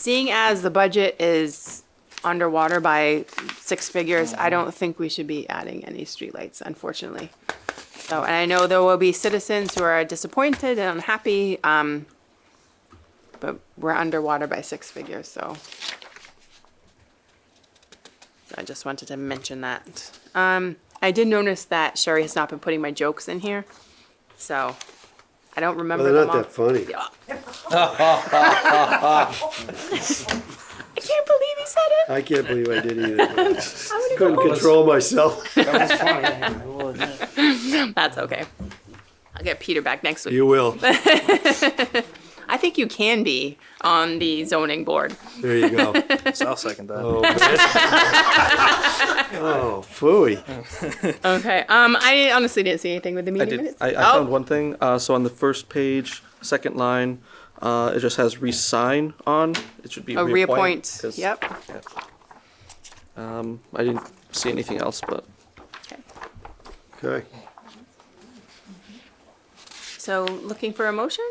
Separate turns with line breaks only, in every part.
Seeing as the budget is underwater by six figures, I don't think we should be adding any streetlights, unfortunately. So, and I know there will be citizens who are disappointed and unhappy, um, but we're underwater by six figures, so. I just wanted to mention that. Um, I did notice that Sherry has not been putting my jokes in here, so I don't
Well,
remember
Oh, they're
them
not
all.
that funny.
I can't believe he said it.
I can't believe I did either.
I'm gonna go
Couldn't control myself.
That was funny. I will admit.
That's okay. I'll get Peter back next week.
You will.
I think you can be on the zoning board.
There you go.
So I'll second that.
Oh, man. Oh, phooey.
Okay. Um, I honestly didn't see anything with the
I
meeting
did.
minutes.
I, I
oh,
found one thing. Uh, so on the first page, second line, uh, it just has resign on. It should be
a Oh, reappoint.
'cause,
Yep.
yeah. Um, I didn't see anything else, but
Okay.
Okay.
So looking for a motion?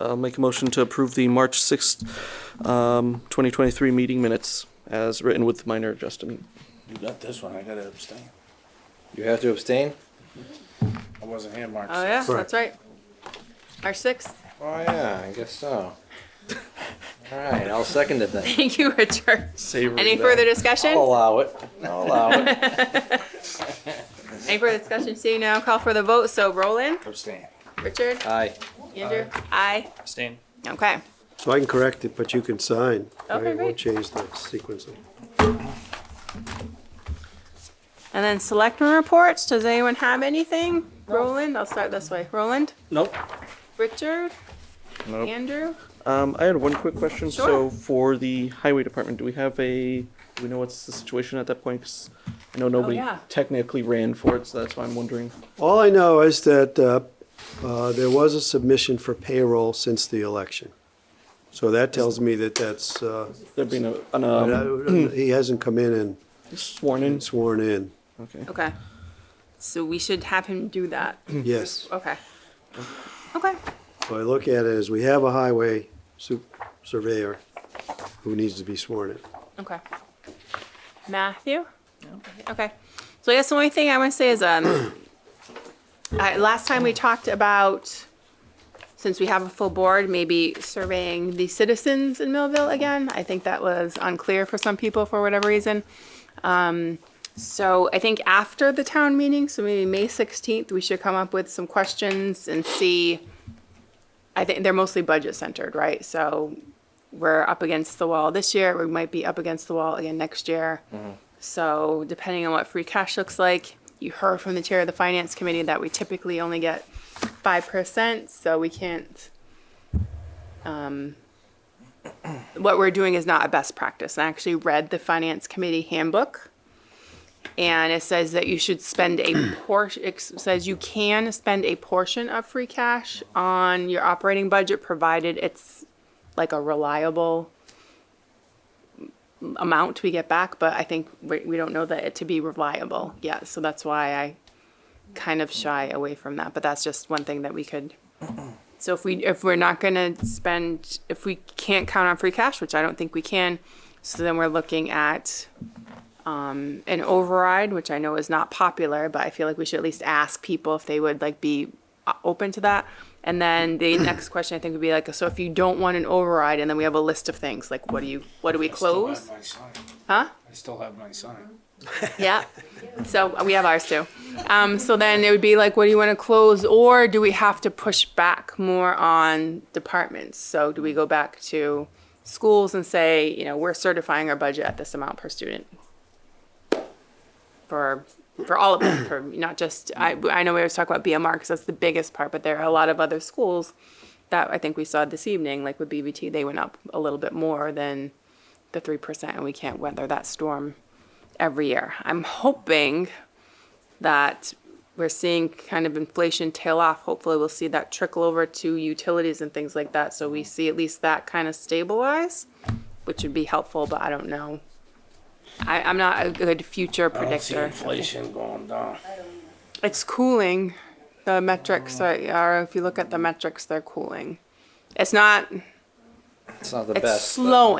uh, I'll make a motion to approve the March sixth, um, twenty twenty-three meeting minutes as written with minor adjustment.
You got this one. I gotta abstain.
You have to abstain?
I wasn't here, Mark.
Oh yeah,
Right.
that's right. Our sixth.
Oh, yeah, I guess so. All right, I'll second it then.
Thank you, Richard.
Savory Oh.
Any further discussion?
I'll allow it. I'll allow it.
Any further discussion? Seeing now, call for the vote. So Roland,
Abstain.
Richard,
Aye.
Andrew, I.
Abstain.
Okay.
So I can correct it, but you can sign.
Okay,
right? We'll
great.
change the sequencing.
And then selectmen reports. Does anyone have anything? Roland, I'll start this way. Roland,
Nope.
Richard,
Nope.
Andrew.
Um, I had one quick question.
Sure.
So for the highway department, do we have a, do we know what's the situation at that point? 'Cause I know nobody
Oh, yeah.
technically ran for it, so that's why I'm wondering.
All I know is that uh, uh, there was a submission for payroll since the election. So that tells me that that's, uh,
There'd been a, an,
but
um,
I- he hasn't come in and
sworn in.
and sworn in.
Okay.
Okay. So we should have him do that.
Yes.
Okay. Okay.
So I look at it as we have a highway su- surveyor who needs to be sworn in.
Okay. Matthew? Okay. So I guess the only thing I want to say is, um, I, last time we talked about, since we have a full board, maybe surveying the citizens in Millville again. I think that was unclear for some people for whatever reason. Um, So I think after the town meeting, so maybe May 16th, we should come up with some questions and see. I think they're mostly budget centered, right? So we're up against the wall this year, we might be up against the wall again next year. So depending on what free cash looks like, you heard from the chair of the finance committee that we typically only get 5%, so we can't. um, What we're doing is not a best practice. And I actually read the finance committee handbook and it says that you should spend a portion, it says you can spend a portion of free cash on your operating budget, provided it's like a reliable amount we get back, but I think we, we don't know that it to be reliable yet, so that's why I kind of shy away from that, but that's just one thing that we could. So if we, if we're not gonna spend, if we can't count on free cash, which I don't think we can, so then we're looking at um, an override, which I know is not popular, but I feel like we should at least ask people if they would like be uh, open to that. And then the next question I think would be like, so if you don't want an override, and then we have a list of things, like what do you, what do we close?
I still have my sign.
Huh?
I still have my sign.
Yeah. So we have ours too. Um, so then it would be like, what do you want to close, or do we have to push back more on departments? So do we go back to schools and say, you know, we're certifying our budget at this amount per student? For for all of them, for not just I I know we always talk about BMR because that's the biggest part, but there are a lot of other schools that I think we saw this evening, like with BBT, they went up a little bit more than the three percent, and we can't weather that storm every year. I'm hoping that we're seeing kind of inflation tail off. Hopefully, we'll see that trickle over to utilities and things like that. So we see at least that kind of stabilize, which would be helpful, but I don't know. I, I'm not a good future
I don't see
predictor.
inflation going down.
It's cooling. The metrics are, are, if you look at the metrics, they're cooling. It's not,
It's not the
It's
best. but-
slowing.